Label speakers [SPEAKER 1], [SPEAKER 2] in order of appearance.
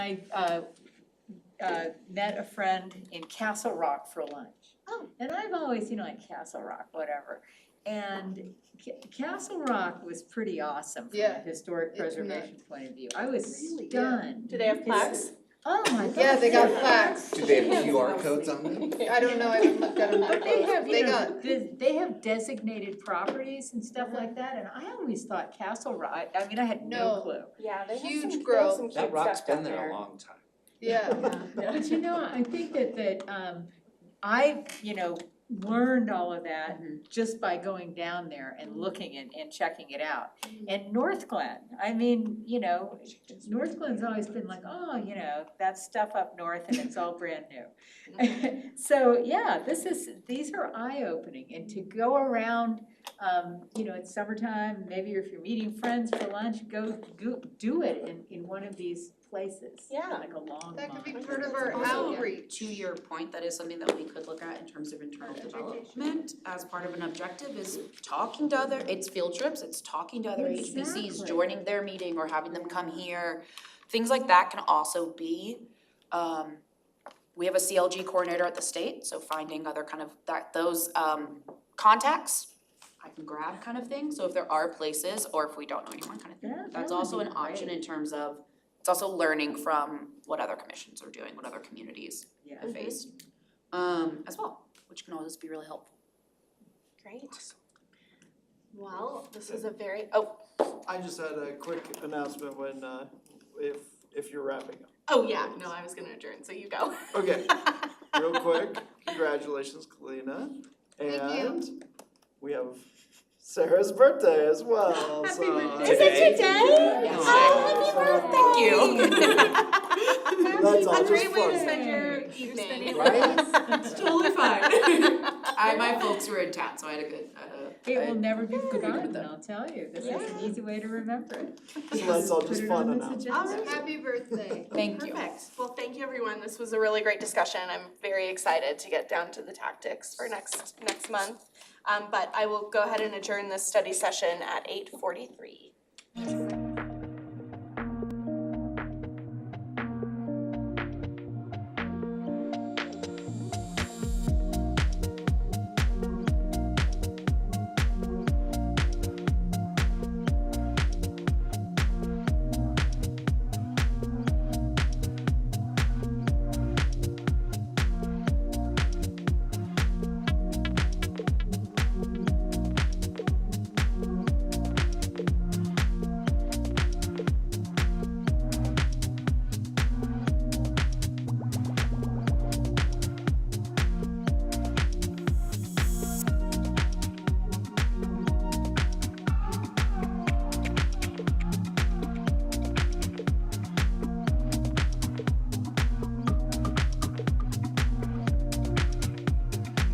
[SPEAKER 1] I uh, uh, met a friend in Castle Rock for lunch.
[SPEAKER 2] Oh.
[SPEAKER 1] And I've always, you know, like Castle Rock, whatever. And Ca- Castle Rock was pretty awesome from a
[SPEAKER 3] Yeah.
[SPEAKER 1] historic
[SPEAKER 3] It- no.
[SPEAKER 1] preservation point of view. I was
[SPEAKER 3] Really? Yeah.
[SPEAKER 1] stunned.
[SPEAKER 2] Do they have plaques?
[SPEAKER 1] Oh my god.
[SPEAKER 3] Yeah, they got
[SPEAKER 1] yeah.
[SPEAKER 3] plaques.
[SPEAKER 4] Do they have QR codes on them?
[SPEAKER 3] I don't know, I haven't looked at them.
[SPEAKER 1] But they have,
[SPEAKER 3] They
[SPEAKER 1] you know,
[SPEAKER 3] got,
[SPEAKER 1] they, they have designated properties and stuff
[SPEAKER 3] Uh-huh.
[SPEAKER 1] like that, and I always thought Castle Rock, I mean, I had no
[SPEAKER 3] No.
[SPEAKER 1] clue.
[SPEAKER 2] Yeah, they have some,
[SPEAKER 3] Huge
[SPEAKER 2] they have
[SPEAKER 3] growth.
[SPEAKER 2] some cute
[SPEAKER 4] That rock's
[SPEAKER 2] stuff down
[SPEAKER 4] been there a long time.
[SPEAKER 3] yeah,
[SPEAKER 1] But you know, I think that that um I, you know, learned all of that just by going down there and looking and and checking it out. And North Glen, I mean, you know, North Glen's always been like, oh, you know, that's stuff up north and it's all brand new. So, yeah, this is, these are eye-opening and to go around, um, you know, it's summertime, maybe if you're meeting friends for lunch, go do do it in in one of these places.
[SPEAKER 2] Yeah.
[SPEAKER 1] Like a long
[SPEAKER 3] that could be
[SPEAKER 1] lawn.
[SPEAKER 3] part of our
[SPEAKER 5] Also,
[SPEAKER 3] outreach.
[SPEAKER 5] to your point, that is something that we could look at in terms of internal development as part of an objective is talking to other, it's field trips, it's talking to other
[SPEAKER 1] Exactly.
[SPEAKER 5] HBCs, joining their meeting or having them come here. Things like that can also be, um, we have a CLG coordinator at the state, so finding other kind of that, those, um, contacts I can grab kind of thing, so if there are places or if we don't know anyone kind of thing.
[SPEAKER 1] Yeah, that
[SPEAKER 5] That's
[SPEAKER 1] would
[SPEAKER 5] also
[SPEAKER 1] be
[SPEAKER 5] an option
[SPEAKER 1] great.
[SPEAKER 5] in terms of, it's also learning from what other commissions are doing, what other communities
[SPEAKER 1] Yeah.
[SPEAKER 5] have faced, um, as well, which can always be really helpful.
[SPEAKER 2] Great. Well, this is a very, oh,
[SPEAKER 6] I just had a quick announcement when, uh, if, if you're wrapping up.
[SPEAKER 2] oh yeah, no, I was gonna adjourn, so you go.
[SPEAKER 6] Okay, real quick, congratulations, Kalina.
[SPEAKER 3] Thank you.
[SPEAKER 6] And we have Sarah's birthday as well,
[SPEAKER 1] Happy
[SPEAKER 6] so.
[SPEAKER 1] birthday.
[SPEAKER 4] Is it today?
[SPEAKER 6] Yeah.
[SPEAKER 5] Oh, Thank you.
[SPEAKER 6] That's all
[SPEAKER 2] A
[SPEAKER 6] just
[SPEAKER 2] great way to
[SPEAKER 6] fun.
[SPEAKER 2] spend your evening.
[SPEAKER 1] spending-
[SPEAKER 4] Right?
[SPEAKER 5] It's totally fine. I, my folks were in town, so I had a good, uh,
[SPEAKER 1] It will never be
[SPEAKER 5] good with
[SPEAKER 1] forgotten,
[SPEAKER 5] them.
[SPEAKER 1] I'll tell you, this is an easy way to remember it.
[SPEAKER 6] So that's all
[SPEAKER 1] Put
[SPEAKER 6] just
[SPEAKER 1] it
[SPEAKER 6] fun
[SPEAKER 1] on
[SPEAKER 6] enough.
[SPEAKER 1] this
[SPEAKER 3] All
[SPEAKER 1] agenda.
[SPEAKER 3] right, happy birthday.
[SPEAKER 5] thank you.
[SPEAKER 2] Perfect. Well, thank you, everyone. This was a really great discussion. I'm very excited to get down to the tactics for next, next month. Um, but I will go ahead and adjourn this study session at eight forty-three.
[SPEAKER 3] Thank you.